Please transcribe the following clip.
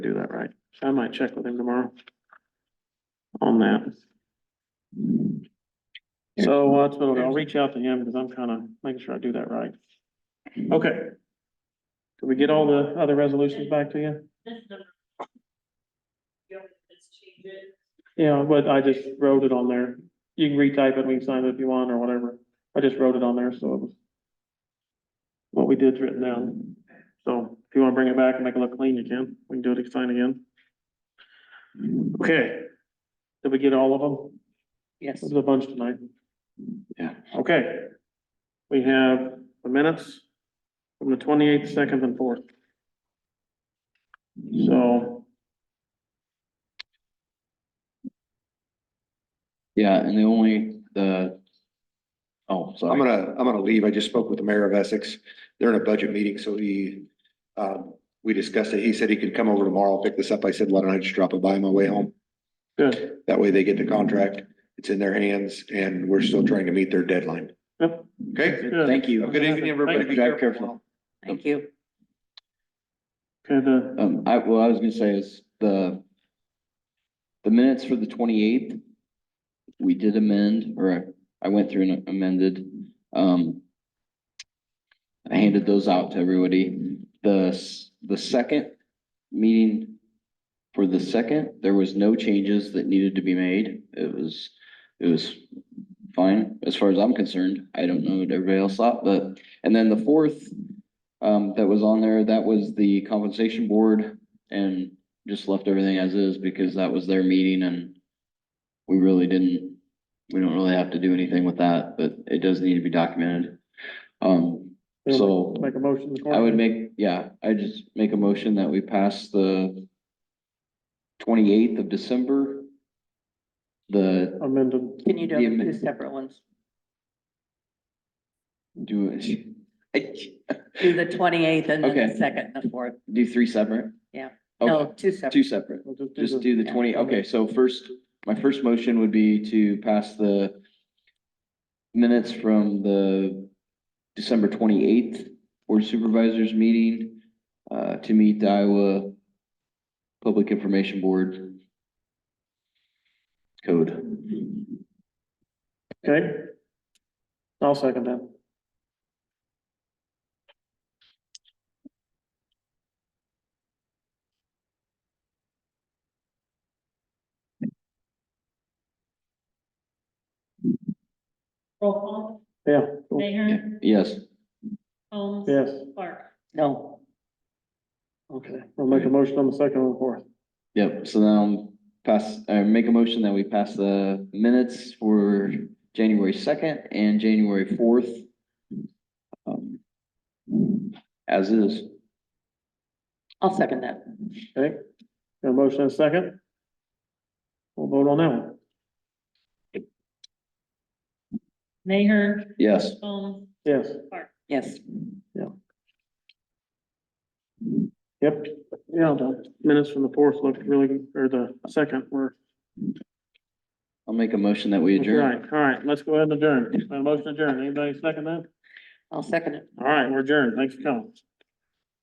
do that right. So I might check with him tomorrow. On that. So uh, that's what I'll I'll reach out to him because I'm kind of making sure I do that right. Okay. Did we get all the other resolutions back to you? This is the. You don't, let's change it. Yeah, but I just wrote it on there. You can retype it, we can sign it if you want or whatever. I just wrote it on there, so it was. What we did's written down. So if you want to bring it back and make it look clean, you can. We can do it again, again. Okay. Did we get all of them? Yes. There's a bunch tonight. Yeah. Okay. We have the minutes from the twenty-eighth, second and fourth. So, Yeah, and the only, the, oh, I'm sorry. gonna, I'm gonna leave. I just spoke with the mayor of Essex. They're in a budget meeting, so he, um, we discussed it. He said he could come over tomorrow, pick this up. I said, why don't I just drop it by on my way home? good. That way they get the contract. It's in their hands and we're still trying to meet their deadline. Yep. Okay? Good. Thank Have a you. Good evening, everybody. Be Drive careful. Thank you. Okay, the, Um, I, well, I was gonna say is the, the minutes for the twenty-eighth, we did amend, or I I went through and amended, um, I handed those out to everybody. The, s- the second meeting, for the second, there was no changes that needed to be made. It was, it was fine, as far as I'm concerned. I don't know what everybody else thought, but, and then the fourth, um, that was on there, that was the compensation board and just left everything as is because that was their meeting and we really didn't, we don't really have to do anything with that, but it does need to be documented. Um, so. make a motion. to- I would make, yeah, I just make a motion that we pass the twenty-eighth of December. The, Amended. Can you do them two separate ones? do, I- Do the twenty-eighth and then the Okay. second and the fourth. do three separate? Yeah. Okay, two two separate. We'll just do Just the- do the twenty, okay, so first, my first motion would be to pass the minutes from the December twenty-eighth Board of Supervisors meeting uh, to meet the Iowa Public Information Board code. Okay. I'll second that. Roll call, Yeah. cool. Mayor, Yes, Holmes. Yes. Clark. No. Okay, we'll make a motion on the second and fourth. yep, so now pass, uh, make a motion that we pass the minutes for January second and January fourth. Um, As is. I'll second that. Okay, got a motion and a second. We'll vote on that one. Mayor, Yes, Holmes, Yes. Clark. Yes. Yep, yeah, the minutes from the fourth looked really, good, or the second were. I'll make a motion that we adjourn. Right, all right, let's go ahead and adjourn. A Motion adjourned. Anybody second that? I'll second it. All right, we're adjourned. Thanks for coming.